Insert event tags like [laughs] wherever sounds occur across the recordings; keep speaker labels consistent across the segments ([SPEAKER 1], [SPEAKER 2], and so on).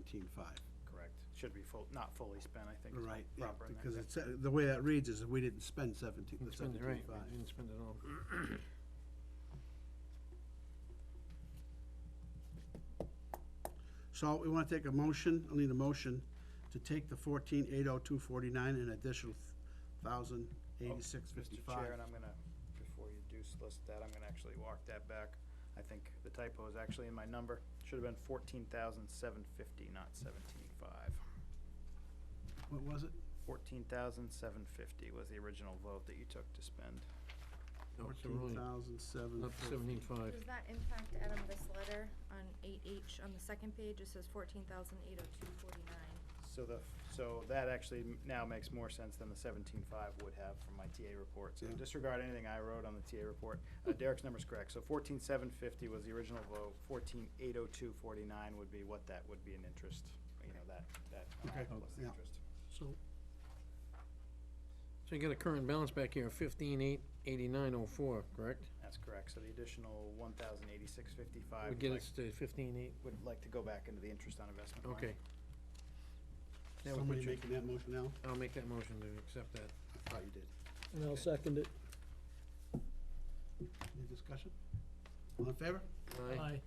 [SPEAKER 1] seventeen-five.
[SPEAKER 2] Correct. Should be full, not fully spent, I think. is
[SPEAKER 1] Right, yeah,
[SPEAKER 2] proper in that
[SPEAKER 1] because
[SPEAKER 2] case.
[SPEAKER 1] it's, uh, the way that reads is we didn't spend seventeen, the
[SPEAKER 3] Didn't spend it right, we
[SPEAKER 1] seventeen-five.
[SPEAKER 3] didn't spend it all.
[SPEAKER 1] So we want to take a motion, I'll need a motion to take the fourteen eight oh two forty-nine and additional thousand eighty-six
[SPEAKER 3] Oh,
[SPEAKER 2] Mr.
[SPEAKER 1] fifty-five.
[SPEAKER 2] Oh, Chair, and I'm gonna, before you do solicit that, I'm gonna actually walk that back. I think the typo is actually in my number. Should have been fourteen thousand seven fifty, not seventeen five.
[SPEAKER 1] What was it?
[SPEAKER 2] Fourteen thousand seven fifty was the original vote that you took to spend.
[SPEAKER 3] No, so we're
[SPEAKER 1] Fourteen
[SPEAKER 3] only
[SPEAKER 1] thousand seven
[SPEAKER 3] up seventeen five.
[SPEAKER 4] Does that impact, Adam, this letter on eight H on the second page? It says fourteen thousand eight oh two forty-nine.
[SPEAKER 2] So the, so that actually m- now makes more sense than the seventeen five would have from my TA report. So
[SPEAKER 1] Yeah.
[SPEAKER 2] disregard anything I wrote on the TA report. Uh, Derek's number's correct. So fourteen seven fifty was the original vote. Fourteen eight oh two forty-nine would be what that would be in interest, you know, that, that amount plus the
[SPEAKER 1] Yeah.
[SPEAKER 2] interest.
[SPEAKER 1] So,
[SPEAKER 3] So you got a current balance back here of fifteen eight eighty-nine oh four, correct?
[SPEAKER 2] That's correct. So the additional one thousand eighty-six fifty-five
[SPEAKER 3] Would
[SPEAKER 2] would
[SPEAKER 3] get
[SPEAKER 2] like,
[SPEAKER 3] us to fifteen eight,
[SPEAKER 2] would like to go back into the interest on investment line.
[SPEAKER 3] okay. That would
[SPEAKER 1] somebody
[SPEAKER 3] put you,
[SPEAKER 1] making that motion now?
[SPEAKER 3] I'll make that motion to accept that.
[SPEAKER 1] I thought you did.
[SPEAKER 5] And I'll second it.
[SPEAKER 1] Any discussion? All in favor?
[SPEAKER 3] Aye.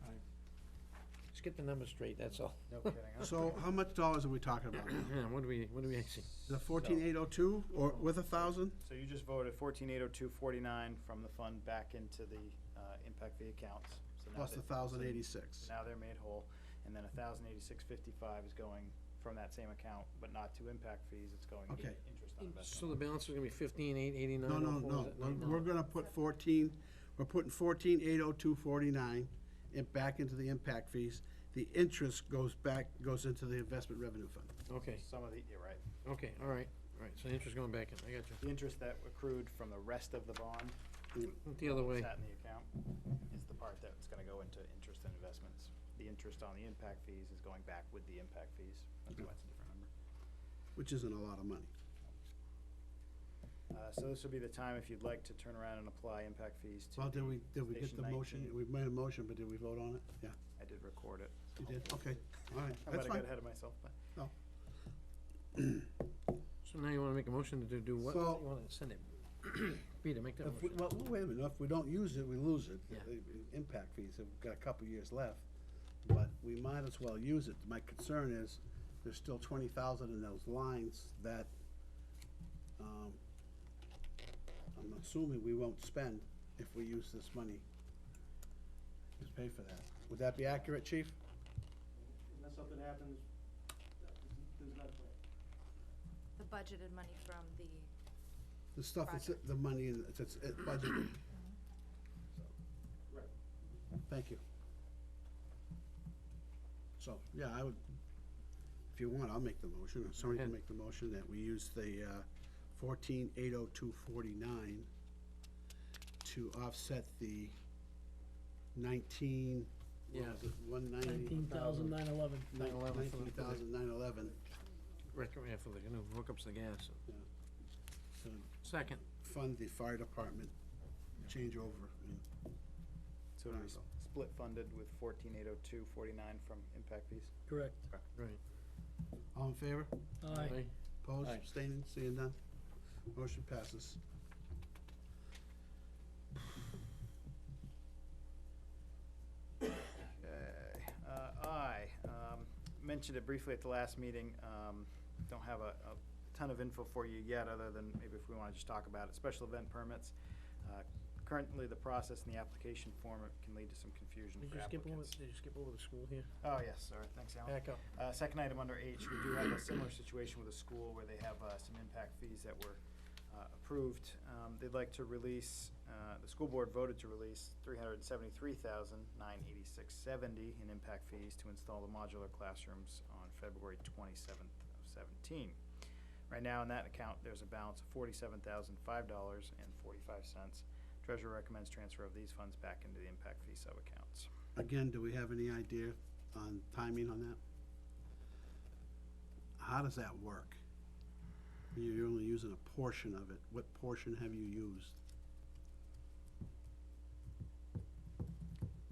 [SPEAKER 3] Just get the numbers straight, that's
[SPEAKER 1] [laughs]
[SPEAKER 3] all.
[SPEAKER 2] No kidding, huh?
[SPEAKER 1] So how much dollars are we talking about?
[SPEAKER 3] What do we, what do we actually,
[SPEAKER 1] The fourteen eight oh two, or with a thousand?
[SPEAKER 2] So you just voted fourteen eight oh two forty-nine from the fund back into the, uh, impact fee accounts. So now
[SPEAKER 1] Plus
[SPEAKER 2] that-
[SPEAKER 1] the thousand
[SPEAKER 2] so
[SPEAKER 1] eighty-six.
[SPEAKER 2] Now they're made whole, and then a thousand eighty-six fifty-five is going from that same account, but not to impact fees, it's going to
[SPEAKER 1] Okay.
[SPEAKER 2] interest on
[SPEAKER 3] so
[SPEAKER 2] investment.
[SPEAKER 3] the balance is gonna be fifteen eight eighty-nine
[SPEAKER 1] No, no,
[SPEAKER 3] oh
[SPEAKER 1] no,
[SPEAKER 3] four?
[SPEAKER 1] we're- we're gonna put fourteen, we're putting fourteen eight oh two forty-nine and back into the impact fees. The interest goes back, goes into the investment revenue fund.
[SPEAKER 3] Okay,
[SPEAKER 2] Some of the, you're right,
[SPEAKER 3] okay, all right, all right, so the interest going back in, I got you.
[SPEAKER 2] the interest that accrued from the rest of the bond,
[SPEAKER 3] The other way,
[SPEAKER 2] sat in the account, is the part that's gonna go into interest and investments. The interest on the impact fees is going back with the impact fees, that's why it's a different number.
[SPEAKER 1] which isn't a lot of money.
[SPEAKER 2] Uh, so this would be the time if you'd like to turn around and apply impact fees to.
[SPEAKER 1] Well, did
[SPEAKER 2] the
[SPEAKER 1] we, did we get
[SPEAKER 2] Station
[SPEAKER 1] the motion?
[SPEAKER 2] 19.
[SPEAKER 1] We made a motion, but did we vote on it? Yeah,
[SPEAKER 2] I did record it.
[SPEAKER 1] you did, okay, all right, that's
[SPEAKER 2] I might have
[SPEAKER 1] fine.
[SPEAKER 2] got ahead of myself, but.
[SPEAKER 3] so now you wanna make a motion to do- do what? You
[SPEAKER 1] So-
[SPEAKER 3] wanna send it, [coughs] Peter, make that
[SPEAKER 1] If we-
[SPEAKER 3] motion.
[SPEAKER 1] Well, wait a minute, if we don't use it, we lose it.
[SPEAKER 3] Yeah.
[SPEAKER 1] The- the Impact fees, we've got a couple years left, but we might as well use it. My concern is, there's still twenty thousand in those lines that, um, I'm assuming we won't spend if we use this money to pay for that. Would that be accurate, chief?
[SPEAKER 6] Unless something happens, that is- there's not a plan.
[SPEAKER 4] The budgeted money from the,
[SPEAKER 1] The stuff, that's the money, in- it's, it's budgeted.
[SPEAKER 6] Right.
[SPEAKER 1] Thank you. So, yeah, I would, if you want, I'll make the motion, or somebody can
[SPEAKER 3] Okay.
[SPEAKER 1] make the motion that we use the uh, fourteen eight oh two forty-nine to offset the nineteen, what
[SPEAKER 3] Yeah.
[SPEAKER 1] was it, one ninety?
[SPEAKER 5] Nineteen thousand nine eleven.
[SPEAKER 1] Nine-
[SPEAKER 3] 911 for the-
[SPEAKER 1] 19,911,
[SPEAKER 3] Right, yeah, for the, you know, hookups to gas.
[SPEAKER 1] to
[SPEAKER 3] Second,
[SPEAKER 1] fund the fire department changeover. and-
[SPEAKER 2] So it'll be
[SPEAKER 1] Alright.
[SPEAKER 2] split funded with fourteen eight oh two forty-nine from impact fees?
[SPEAKER 5] Correct.
[SPEAKER 3] right.
[SPEAKER 1] All in favor?
[SPEAKER 5] Aye.
[SPEAKER 1] Opposed,
[SPEAKER 3] Aye.
[SPEAKER 1] abstaining, seeing none? Motion passes.
[SPEAKER 2] Okay, uh, I, um, mentioned it briefly at the last meeting, um, don't have a, a ton of info for you yet, other than maybe if we wanna just talk about it, special event permits. Uh, Currently, the process and the application form can lead to some confusion
[SPEAKER 3] Did
[SPEAKER 2] for
[SPEAKER 3] you skip over,
[SPEAKER 2] applicants.
[SPEAKER 3] did you skip over the school here?
[SPEAKER 2] Oh, yes, sir, thanks, Alan.
[SPEAKER 3] Back up.
[SPEAKER 2] Uh, second item under H, we do have a similar situation with a school where they have, uh, some impact fees that were, uh, approved. Um, they'd like to release, uh, the school board voted to release three hundred and seventy-three thousand, nine eighty-six seventy in impact fees to install the modular classrooms on February twenty-seventh of seventeen. Right now, in that account, there's a balance of forty-seven thousand, five dollars and forty-five cents. Treasurer recommends transfer of these funds back into the impact fee sub-accounts.
[SPEAKER 1] Again, do we have any idea on timing on that? How does that work? You're only using a portion of it. What portion have you used?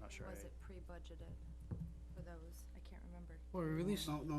[SPEAKER 2] Not sure. I-
[SPEAKER 4] was it pre-budgeted for those? I can't remember.
[SPEAKER 7] Well, we released
[SPEAKER 3] No, no,